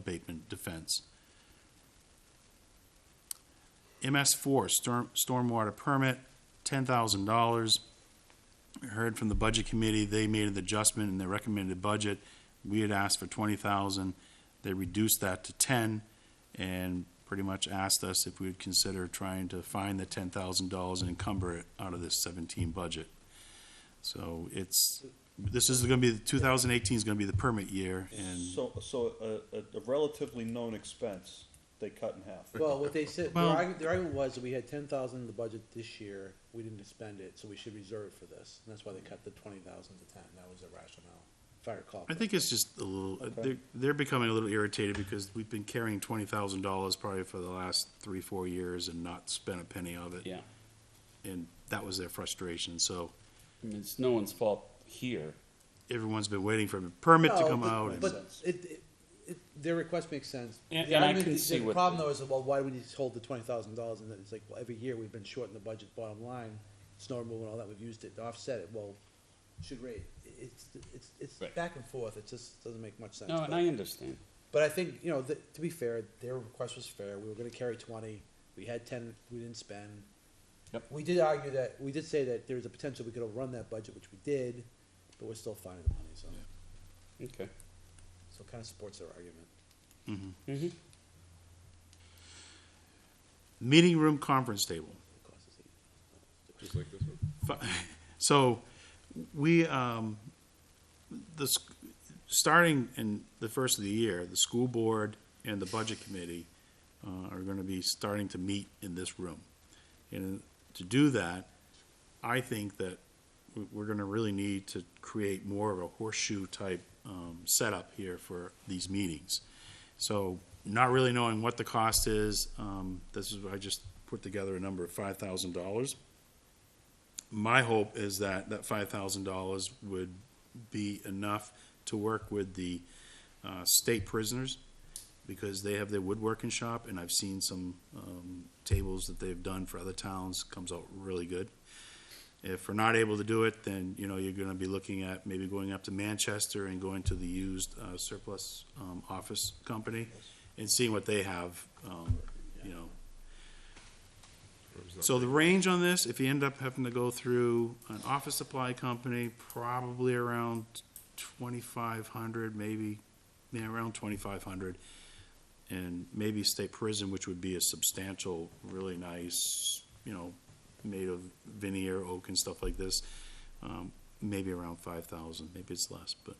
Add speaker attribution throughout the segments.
Speaker 1: abatement defense. MS four, storm, stormwater permit, ten thousand dollars. Heard from the budget committee, they made an adjustment in their recommended budget. We had asked for twenty thousand, they reduced that to ten, and pretty much asked us if we would consider trying to find the ten thousand dollars and encumber it out of this seventeen budget. So it's, this is gonna be, two thousand eighteen is gonna be the permit year, and,
Speaker 2: So, so a, a- a relatively known expense, they cut in half.
Speaker 3: Well, what they said, their
Speaker 1: Well-
Speaker 3: argument, their argument was that we had ten thousand in the budget this year, we didn't spend it, so we should reserve for this. And that's why they cut the twenty thousand to ten, that was their rationale, if I recall.
Speaker 1: I think it's just a little, they're, they're becoming a little irritated because we've been carrying twenty thousand dollars probably for the last three, four years and not spent a penny of it.
Speaker 4: Yeah,
Speaker 1: And that was their frustration, so
Speaker 4: I mean, it's no one's fault here.
Speaker 1: everyone's been waiting for a permit to
Speaker 3: No,
Speaker 1: come
Speaker 3: but-
Speaker 1: out. and-
Speaker 3: But it, it, it, their request makes sense.
Speaker 4: And-
Speaker 3: The
Speaker 4: and I
Speaker 3: argument-
Speaker 4: can
Speaker 3: the-
Speaker 4: see
Speaker 3: The
Speaker 4: what
Speaker 3: problem
Speaker 4: the-
Speaker 3: though is, well, why do we need to hold the twenty thousand dollars? And then it's like, well, every year we've been short in the budget bottom line, snow removal and all that, we've used it to offset it, well, should rate. It's, it's, it's
Speaker 4: Right.
Speaker 3: back and forth, it just doesn't make much sense.
Speaker 4: No, and
Speaker 3: but-
Speaker 4: I understand.
Speaker 3: But I think, you know, th to be fair, their request was fair. We were gonna carry twenty. We had ten we didn't spend.
Speaker 4: Yep.
Speaker 3: We did argue that, we did say that there's a potential we could overrun that budget, which we did, but we're still finding the money, so,
Speaker 4: Okay.
Speaker 3: so it kinda supports their argument.
Speaker 4: Mhm.
Speaker 1: Meeting room conference table.
Speaker 3: It costs us eight.
Speaker 1: Fi- So, we, um, the, s- starting in the first of the year, the school board and the budget committee, uh, are gonna be starting to meet in this room. And to do that, I think that we- we're gonna really need to create more of a horseshoe type, um, setup here for these meetings. So, not really knowing what the cost is, um, this is, I just put together a number of five thousand dollars my hope is that that five thousand dollars would be enough to work with the uh, state prisoners because they have their woodworking shop, and I've seen some um, tables that they've done for other towns comes out really good. If we're not able to do it, then you know you're going to be looking at maybe going up to Manchester and going to the used uh, surplus um, office company and seeing what they have, um, you know, so the range on this, if you end up having to go through an office supply company, probably around twenty-five hundred, maybe, yeah, around twenty-five hundred. And maybe state prison, which would be a substantial, really nice, you know, made of veneer, oak and stuff like this. Um, maybe around five thousand, maybe it's less, but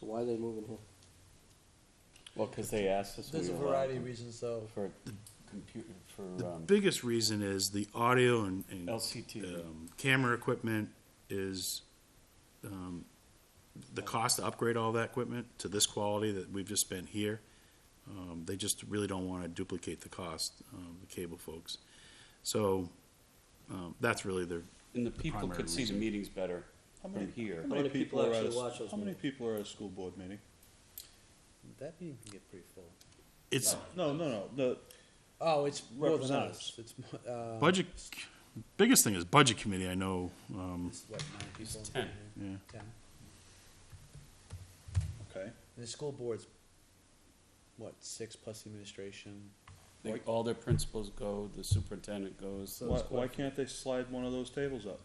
Speaker 5: So why are they moving here?
Speaker 4: Well, because they asked us.
Speaker 3: There's a
Speaker 4: we were
Speaker 3: variety of
Speaker 4: allowed
Speaker 3: reasons though.
Speaker 4: For computer,
Speaker 1: the
Speaker 4: for, um,
Speaker 1: biggest reason is the audio and, and
Speaker 4: LCT.
Speaker 1: um, camera equipment is, um, the cost to upgrade all that equipment to this quality that we've just spent here, um, they just really don't wanna duplicate the cost, um, the cable folks. So, um, that's really their,
Speaker 4: And the people
Speaker 1: primary
Speaker 4: could see the
Speaker 1: reason.
Speaker 4: meetings better
Speaker 2: How many,
Speaker 4: from here.
Speaker 2: how many people are at,
Speaker 5: actually
Speaker 2: a-
Speaker 5: watch those
Speaker 2: how many people are at a school board meeting?
Speaker 3: That meeting can get pretty full.
Speaker 1: it's
Speaker 2: No, no, no, the,
Speaker 3: Oh, it's more than
Speaker 2: Representatives.
Speaker 3: us. It's, mo- uh,
Speaker 1: budget, biggest thing is budget committee, I know, um,
Speaker 3: it's what, nine people?
Speaker 4: ten.
Speaker 1: yeah.
Speaker 3: Ten.
Speaker 2: okay,
Speaker 3: And the school board's, what, six plus the administration?
Speaker 4: They- All their principals go, the superintendent goes.
Speaker 2: why, why can't they slide one of those tables up?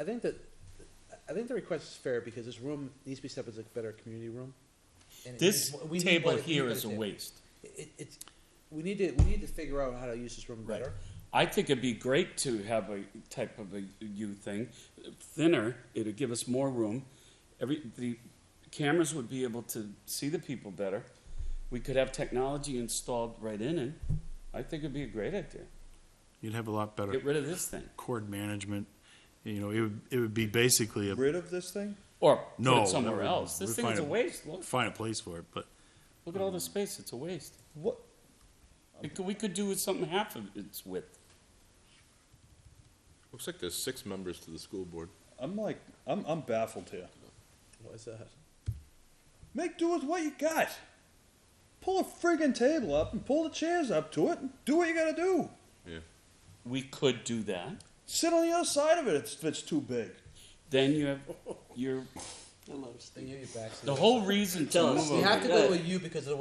Speaker 3: I think that, I think the request is fair because this room needs to be set up as a better community room. And it
Speaker 4: This
Speaker 3: needs- we need
Speaker 4: table
Speaker 3: better- we need
Speaker 4: here
Speaker 3: better
Speaker 4: is a
Speaker 3: table.
Speaker 4: waste.
Speaker 3: It, it's, we need to, we need to figure out how to use this room
Speaker 4: Right.
Speaker 3: better.
Speaker 4: I think it'd be great to have a type of a U thing, thinner. It'd give us more room. Every the cameras would be able to see the people better. We could have technology installed right in it. I think it'd be a great idea.
Speaker 1: You'd have a lot
Speaker 4: Get
Speaker 1: better
Speaker 4: rid of this thing,
Speaker 1: cord management, you know, it would, it would be basically a,
Speaker 2: Rid of this thing?
Speaker 4: or
Speaker 1: No,
Speaker 4: put it somewhere
Speaker 1: no, we-
Speaker 4: else.
Speaker 1: we
Speaker 4: This thing
Speaker 1: find
Speaker 4: is a
Speaker 1: a-
Speaker 4: waste. Look,
Speaker 1: find a place for it, but
Speaker 4: look at all the space. It's a waste.
Speaker 2: What,
Speaker 4: It could, we could do with something half of its width.
Speaker 6: Looks like there's six members to the school board.
Speaker 2: I'm like, I'm, I'm baffled here.
Speaker 3: What is that?
Speaker 2: Make do with what you got. Pull a friggin' table up and pull the chairs up to it and do what you gotta do.
Speaker 6: Yeah.
Speaker 4: We could do that.
Speaker 2: Sit on the other side of it if it's too big.
Speaker 4: Then you have your They'll let us
Speaker 3: They
Speaker 4: think.
Speaker 3: give you back. so
Speaker 7: The
Speaker 3: you-
Speaker 7: whole reason to
Speaker 4: Tell
Speaker 7: move
Speaker 4: us.
Speaker 7: over.
Speaker 3: You have to
Speaker 4: Yeah.
Speaker 3: go with you because of the